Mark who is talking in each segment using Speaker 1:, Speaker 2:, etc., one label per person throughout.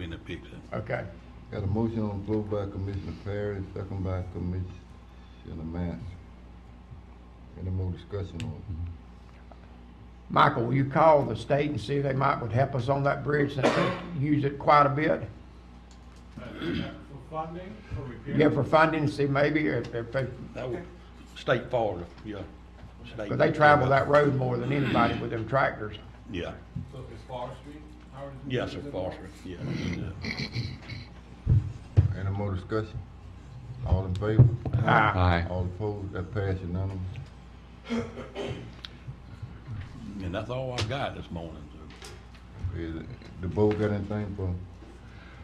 Speaker 1: in the picture.
Speaker 2: Okay.
Speaker 3: Got a motion on the floor by Commissioner Perry, second by Commissioner Mass. Any more discussion on it?
Speaker 2: Michael, will you call the state and see if they might would help us on that bridge since they use it quite a bit?
Speaker 4: Uh, For funding, for repair?
Speaker 2: Yeah, for funding, see maybe if, if they,
Speaker 1: That would, state forward, yeah. State-
Speaker 2: because they travel that road more than anybody with them tractors.
Speaker 1: Yeah,
Speaker 4: So it's forestry? Howard is-
Speaker 1: yes, sir, Foster, yeah. yeah.
Speaker 3: Any more discussion? All in favor?
Speaker 2: Ah,
Speaker 5: Aye.
Speaker 3: All opposed, that pass unanimous.
Speaker 1: And that's all I got this morning, sir.
Speaker 3: Is, it- the board got anything for,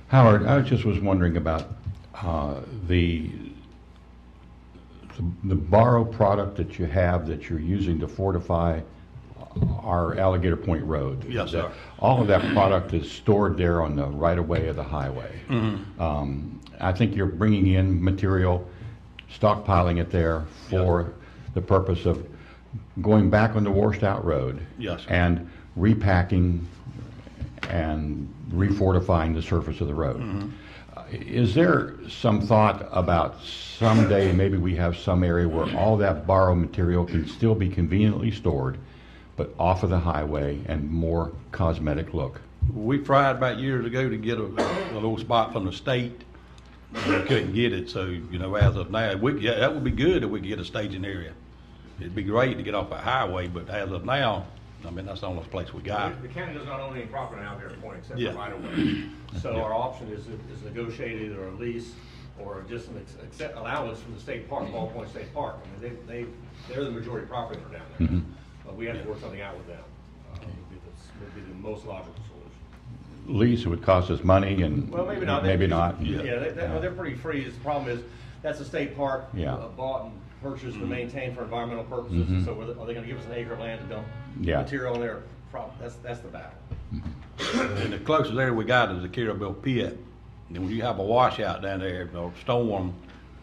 Speaker 5: Howard, I just was wondering about uh, the, the borrow product that you have that you're using to fortify our Alligator Point Road.
Speaker 1: Yes, sir.
Speaker 5: All of that product is stored there on the right-of-way of the highway. Um, I think you're bringing in material, stockpiling it there for the purpose of going back on the washed-out road.
Speaker 1: Yes, sir.
Speaker 5: And repacking and refortifying the surface of the road. Uh, Is there some thought about someday, maybe we have some area where all that borrowed material can still be conveniently stored, but off of the highway and more cosmetic look?
Speaker 1: We tried about years ago to get a, a little spot from the state, but we couldn't get it, so, you know, as of now, we, yeah, that would be good if we could get a staging area. It'd be great to get off a highway, but as of now, I mean, that's the only place we got.
Speaker 6: The county does not own any property out there, point, except
Speaker 1: Uh, Yeah.
Speaker 6: for right of way. So our option is, is negotiate either a lease or just an ex- accept allowance from the state park, Ball Point State Park. I mean, they, they, they're the majority property owner down there. But we have to work something out with them. Uh, Would be the, would be the most logical solution.
Speaker 5: Lease would cost us money and
Speaker 6: Well, maybe not.
Speaker 5: maybe not.
Speaker 6: Yeah, they, they- well, they're pretty free. The problem is, that's a state park.
Speaker 5: Yeah.
Speaker 6: uh, Bought and purchased and maintained for environmental purposes, and so are they- are they gonna give us an acre of land to dump
Speaker 5: Yeah.
Speaker 6: material in there? Prob, that's, that's the battle.
Speaker 1: And the closest area we got is the Carabel Pit. And when you have a washout down there, or storm,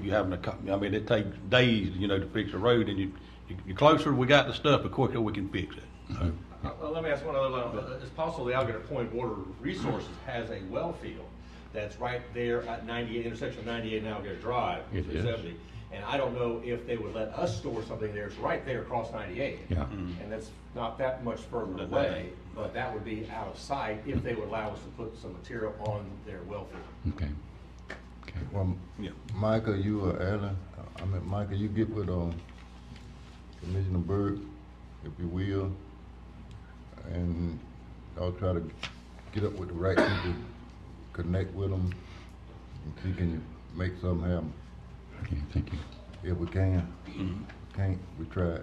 Speaker 1: you having to, co- I mean, it takes days, you know, to fix a road, and you, you- the closer we got the stuff, the quicker we can fix it.
Speaker 6: Uh, well, let me ask one other, one. Uh, it's possible the Alligator Point Water Resources has a well field that's right there at ninety-eight, intersection of ninety-eight and Alligator Drive,
Speaker 5: It
Speaker 6: three
Speaker 5: is.
Speaker 6: seventy. And I don't know if they would let us store something there, it's right there across ninety-eight.
Speaker 5: Yeah.
Speaker 6: And that's not that much further
Speaker 1: But that
Speaker 6: away,
Speaker 1: ain't-
Speaker 6: but that would be out of sight if they would allow us to put some material on their well field.
Speaker 5: Okay. Okay.
Speaker 3: well,
Speaker 1: Yeah.
Speaker 3: Michael, you or Alan, I mean, Michael, you get with, um, Commissioner Byrd, if you will, and I'll try to get up with the right people, connect with them, and see can you make something happen.
Speaker 5: Okay, thank you.
Speaker 3: If we can, Mm-hmm. can't, we try.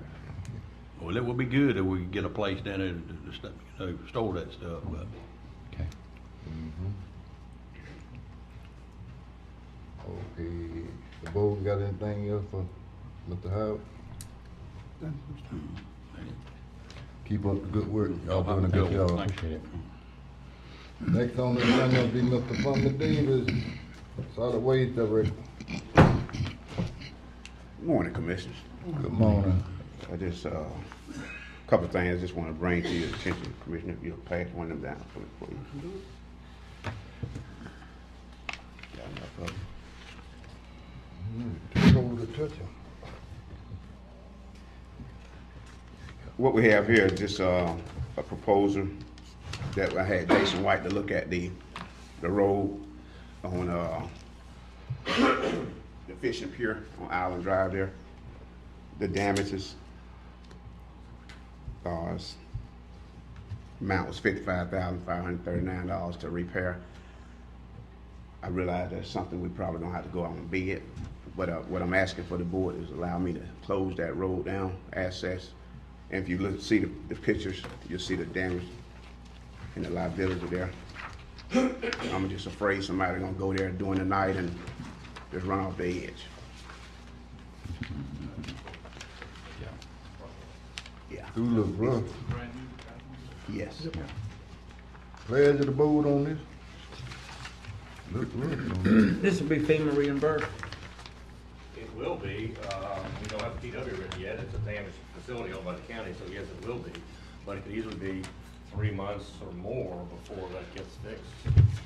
Speaker 1: Well, it would be good if we could get a place down there to, to, st- you know, store that stuff, but
Speaker 5: Okay.
Speaker 3: Okay, the board got anything else for Mr. Howard? Keep up the good work, y'all doing a good job.
Speaker 5: Appreciate it.
Speaker 3: Next on the agenda will be Mr. Plummer Davis, Solid Waste Director.
Speaker 7: Morning, Commissioners.
Speaker 3: Good morning.
Speaker 7: I just, a couple of things I just want to bring to your attention, Commissioner, if you'll pass one of them down for me, please. Got enough of them?
Speaker 3: Too cold to touch him.
Speaker 7: What we have here is just uh, a proposal that I had Jason White to look at the, the road on, uh, the fishing pier on Island Drive there, the damages. uh, s- Amount was fifty-five thousand, five hundred thirty-nine dollars to repair. I realize that's something we probably don't have to go out and bid, but uh, what I'm asking for the board is allow me to close that road down, access. And if you look, see the, the pictures, you'll see the damage and the liability there. I'm just afraid somebody gonna go there during the night and just run off the edge. Yeah,
Speaker 3: Do uh, look rough.
Speaker 7: yes.
Speaker 3: Pledge of the board on this? Look rough on this.
Speaker 8: This will be FEMA reimbursed.
Speaker 6: It will be, uh, we don't have a PW written yet, it's a damaged facility owned by the county, so yes, it will be. But it could easily be three months or more before that gets fixed.